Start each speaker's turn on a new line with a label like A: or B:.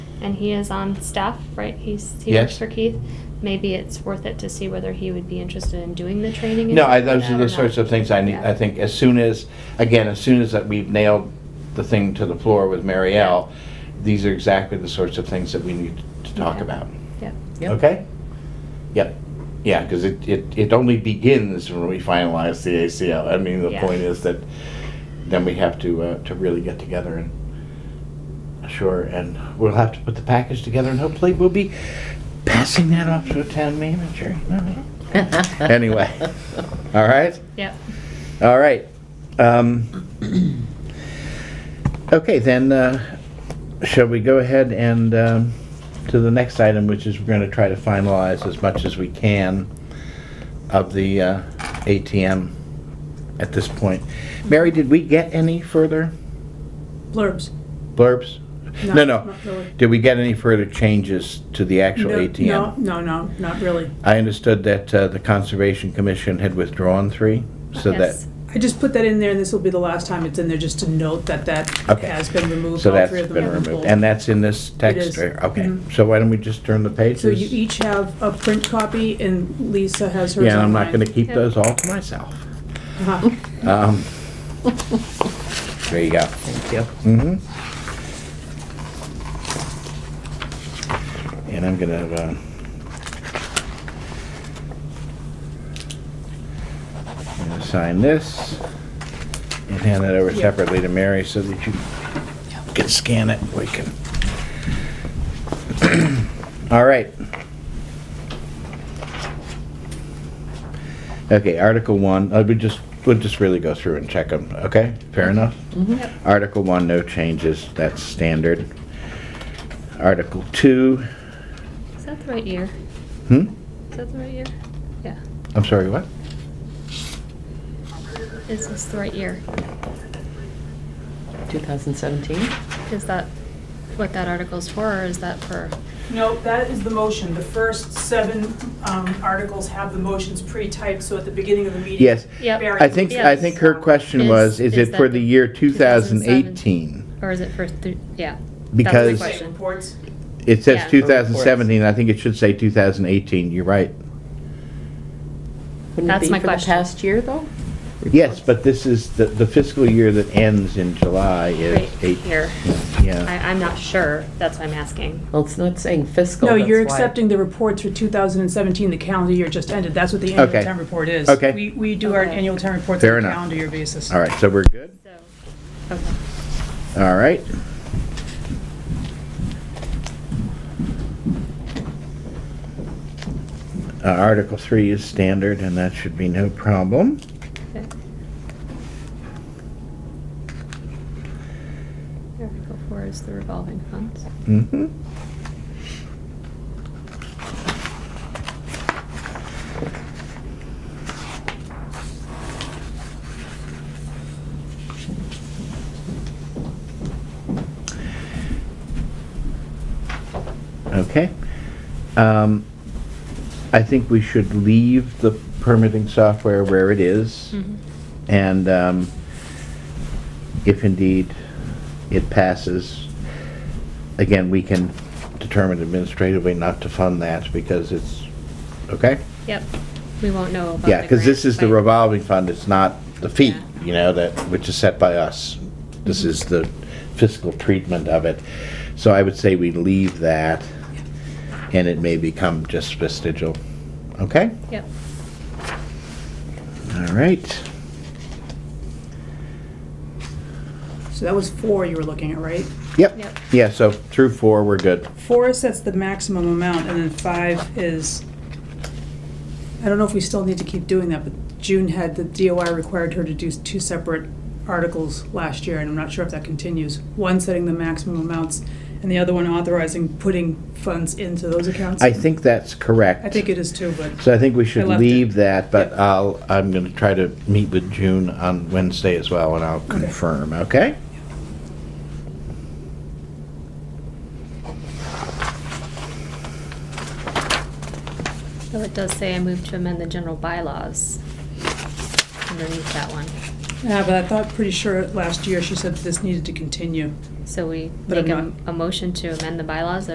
A: and he is on staff, right? He's, he
B: Yes.
A: works for Keith. Maybe it's worth it to see whether he would be interested in doing the training. and
B: No, I,
A: stuff
B: those
A: like
B: are
A: that or
B: the sorts
A: not.
B: of things I need,
A: Yeah.
B: I think as soon as, again, as soon as that we've nailed the thing to the floor with Mary L., these are exactly the sorts of things that we need to talk
A: Okay.
B: about.
A: Yep.
C: Yep.
B: Okay? Yep. Yeah, because it, it, it only begins when we finalize the ACL. I mean, the
A: Yeah.
B: point is that then we have to, uh, to really get together and, sure, and we'll have to put the package together and hopefully we'll be passing that off to a town manager. Anyway, all right?
A: Yep.
B: All right. Um, Okay, then, uh, shall we go ahead and um, to the next item, which is we're going to try to finalize as much as we can of the uh, ATM at this point. Mary, did we get any further
D: Blurbs.
B: blurbs?
D: No,
B: No, no.
D: not really.
B: Did we get any further changes to the actual
D: No,
B: ATM?
D: No, no, no, not really.
B: I understood that uh, the Conservation Commission had withdrawn three, so that,
A: Yes.
D: I just put that in there, and this will be the last time it's in there, just to note that that
B: Okay.
D: has been removed.
B: so
D: all
B: that's
D: three of them
B: been
D: have
B: removed.
D: pulled.
B: And that's in this text?
D: is.
B: or- Okay,
D: Mhm.
B: so why don't we just turn the pages?
D: So you each have a print copy, and Lisa has hers
B: Yeah, and I'm not
D: online.
B: gonna keep
A: Yeah.
B: those all to myself.
D: Uh-huh.
B: Um, There you go. Thank you. Mm-hmm. And I'm gonna, uh, I'm gonna sign this and hand that over
D: Yeah.
B: separately to Mary so that you can scan it. We can. All right. Okay, Article One, uh, we just, we'll just really go through and check them, okay? Fair enough?
C: Mm-hmm.
A: Yep.
B: Article One, no changes, that's standard. Article Two,
A: Is that the right year?
B: hmm?
A: Is that the right year? Yeah.
B: I'm sorry, what?
A: Is this the right year?
C: 2017?
A: Is that what that article's for, or is that for?
D: No, that is the motion. The first seven um, articles have the motions pre-typed, so at the beginning of the meeting.
B: Yes.
A: Yep.
D: Barry um,
B: I think, I think her question
A: Is-
B: was, is
A: is
B: it for
A: that
B: the year
A: 2017?
B: 2018?
A: Or is it for, th- yeah.
B: Because-
A: That's the
D: Say
A: question.
D: Reports.
B: It
A: Yeah.
B: says
A: For reports.
B: 2017, I think it should say 2018, you're right.
C: Wouldn't it
A: That's
C: be
A: my
C: for
A: question.
C: the past year, though?
B: Yes, but this is, the the fiscal year that ends in July is
A: Right
B: eight.
A: here. I,
B: Yeah, Oh.
A: I'm not sure, that's why I'm asking.
C: Well, it's not saying fiscal.
D: No,
C: that's
D: you're
C: why.
D: accepting the reports for 2017, the calendar year just ended. That's what the
B: Okay.
D: annual town report is.
B: Okay.
D: We, we do our
A: Okay.
D: annual town reports
B: Fair
D: on a
B: enough.
D: calendar year basis.
B: all right, so we're good?
A: So, okay.
B: All right. Uh, Article 3 is standard, and that should be no problem.
A: Okay. Article four is the revolving funds.
B: Mm-hmm. Okay. Um, I think we should leave the permitting software where it is. And um, if indeed it passes, again, we can determine administratively not to fund that because it's, okay?
A: Yep, we won't know about the
B: Yeah, because this
A: grant,
B: is the
A: but-
B: revolving fund, it's not the fee,
A: Yeah. Mm-hmm.
B: you know, that, which is set by us. This is the fiscal treatment of it. So I would say we leave that, and it may become just vestigial, okay?
A: Yep,
B: All right.
D: So that was four you were looking at, right?
B: Yep,
A: Yep.
B: yeah, so through four, we're good.
D: Four sets the maximum amount, and then five is, I don't know if we still need to keep doing that, but June had, the DOI required her to do two separate articles last year, and I'm not sure if that continues. One setting the maximum amounts, and the other one authorizing putting funds into those accounts.
B: I think that's correct.
D: I think it is too, but,
B: So I think we should
D: left it.
B: leave that, but
D: Yeah.
B: I'll, I'm gonna try to meet with June on Wednesday as well, and I'll confirm, okay?
A: so it does say I move to amend the general bylaws underneath that one.
D: yeah, but I thought, pretty sure last year she said this needed to continue.
A: So we
D: But
A: make a,
D: I'm
A: a motion to amend the bylaws